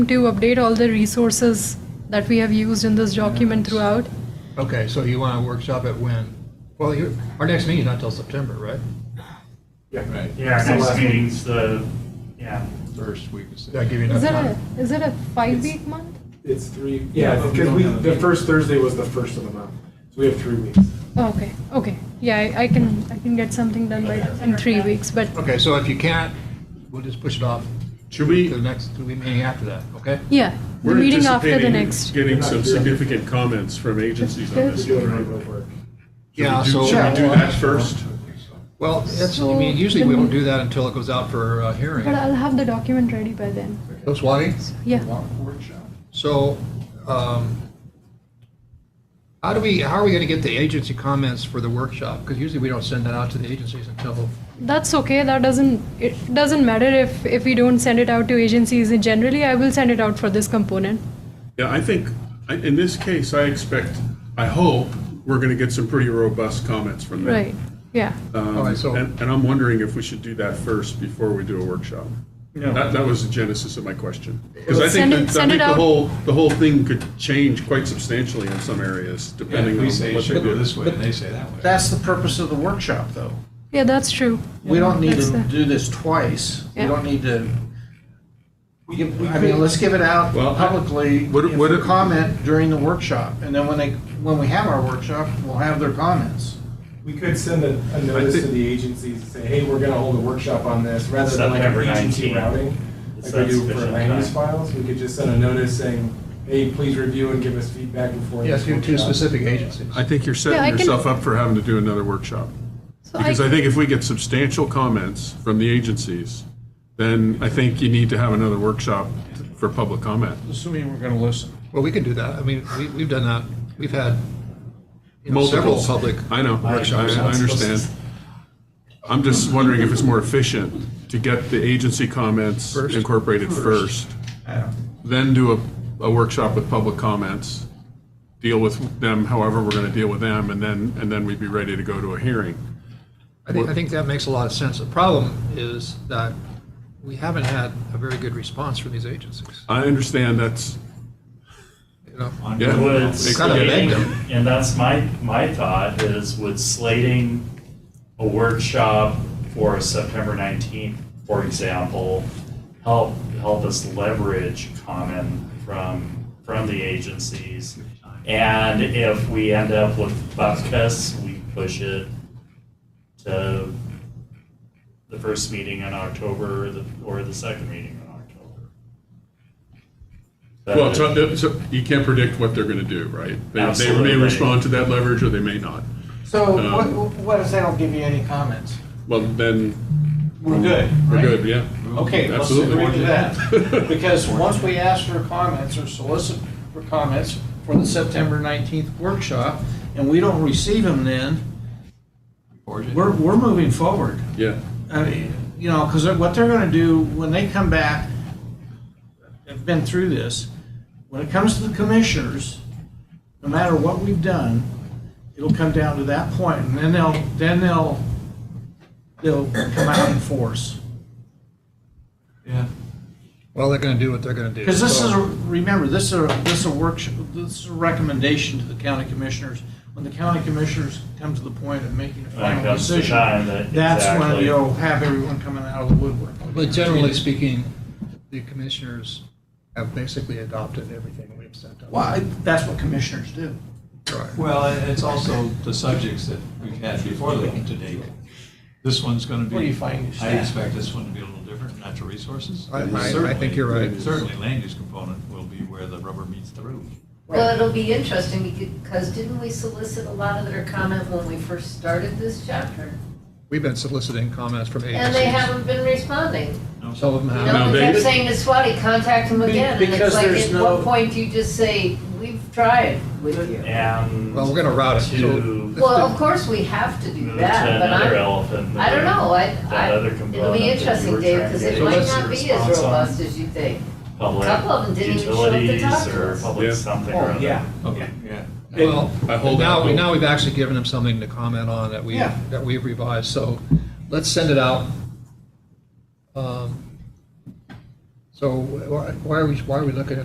to update all the resources that we have used in this document throughout. Okay, so you want a workshop at when? Well, you- our next meeting's not till September, right? Right. Yeah, our So next last meeting's the, yeah, First week of Did I September. give you enough Is it time? a, is it a five-week month? It's three, Yeah, yeah, but we because don't we, have a the meeting. first Thursday was the first of the month, so we have three weeks. Oh, Okay, okay, yeah, I I can, I can get something done by, in three weeks, but, Okay, so if you can't, we'll just push it off. Should we- To the next, to the meeting after that, okay? yeah, the We're meeting after the anticipating next. Getting some significant comments from agencies on That's We're this. doing remote work. Yeah, Should we so. do- Should we do that first? Well, that's, I mean, usually we don't do that until it goes out for uh, hearing. But I'll have the document ready by then, So Swati? yeah. So, um, how do we, how are we going to get the agency comments for the workshop? Because usually we don't send that out to the agencies until, That's okay. That doesn't it doesn't matter if if we don't send it out to agencies. Generally, I will send it out for this component. Yeah, I think, I- in this case, I expect, I hope, we're going to get some pretty robust comments from them. Right. Yeah. Um, All right, so- And and I'm wondering if we should do that first before we do a workshop. That, that was the genesis of my question. Because I think, Send it- that- I send it think the out. whole, the whole thing could change quite substantially in some areas, Yeah, depending on we say it what they should go do. this way, and they say that way. That's the purpose of the workshop, though. Yeah, that's true. We don't need That's to the- do this twice. We Yeah. don't need to, I mean, let's give it out Well, I- publicly, What- if what- they comment during the workshop, and then when they, when we have our workshop, we'll have their comments. We could send a, a notice think- to the agencies and say, hey, we're gonna hold a workshop on this, rather than like September an agency 19th. routing, It's like we not do for sufficient land use time. files, we could just send a notice saying, hey, please review and give us feedback before. yes, this to to workshop." specific agencies. I think you're Yeah, I setting can- yourself up for having to do another workshop. So Because I think if we get substantial comments from the agencies, then I think you need to have another workshop for public comment. Assuming we're going to listen. Well, we can do that. I mean, we, we've done that. We've had you know, several Multiple public. I know, I I understand. I'm just wondering if it's more efficient to get the agency comments First. incorporated first, then do a, a workshop with public comments, deal with them however we're going to deal with them, and then, and then we'd be ready to go to a hearing. I think, I think that makes a lot of sense. The problem is that we haven't had a very good response from these agencies, I understand that's, you know? Yeah. would It's gotta slating, beg them. and that's my, my thought is would slating a workshop for September nineteenth, for example, help, help us leverage comment from, from the agencies. And if we end up with buckets, we push it to the first meeting in October, or the, or the second meeting in October. But- well, so- uh, so you can't predict what they're going to do, right? They- They may Absolutely. respond to that leverage or they may not. So what, Um, what if they don't give you any comments? Well, then, We're good, we're right? good, yeah. Okay, let's Absolutely. agree to that. Because once we ask for comments or solicit for comments for the September 19th workshop, and we don't receive them then, we're, we're moving forward. Yeah. I mean, you know, because what they're going to do when they come back, I've been through this, when it comes to the commissioners, no matter what we've done, it'll come down to that point, and then they'll, then they'll, they'll come out in force. Yeah. Well, they're going to do what they're going to do. Because this So- is, a remember, this is, a- this is a workshop, this is a recommendation to the county commissioners. When the county commissioners come to the point of making a Like final that's the decision, time that. that's when exactly. you'll have everyone coming out of the woodwork. But generally speaking, the commissioners have basically adopted everything we've sent out. Well, I- that's what commissioners do. Right. Well, and it's also the subjects that we've had before them to date. This one's going to be. What do you find is I that- expect this one to be a little different, natural resources. I- I- I Certainly- think you're right. Certainly, land use component will be where the rubber meets the road. Well, it'll be interesting because didn't we solicit a lot of their comment when we first started this chapter? We've been soliciting comments from agencies. And they haven't been responding. No? Some um, of them You have. No, know, they they- kept saying to Swati, contact them Be- again. And because it's like, there's at no- what point do you just say, we've tried with you? And. Well, we're going to route it. To- So- Well, of course, we have to do Move to that, but another I'm, elephant. in the I don't room. know, I, That I, other it'll component that be you interesting, were Dave, trying to because get it a might lesser not be as response on. robust as you think. Public couple of them didn't even show up to talk utilities to or us. public Yeah. something or Oh, other. yeah. Okay, yeah. Well, I hold now, out hope. now we've actually given them something to comment on that we, Yeah. that we've revised, so let's send it out. Um, So wh- why are we, why are we looking at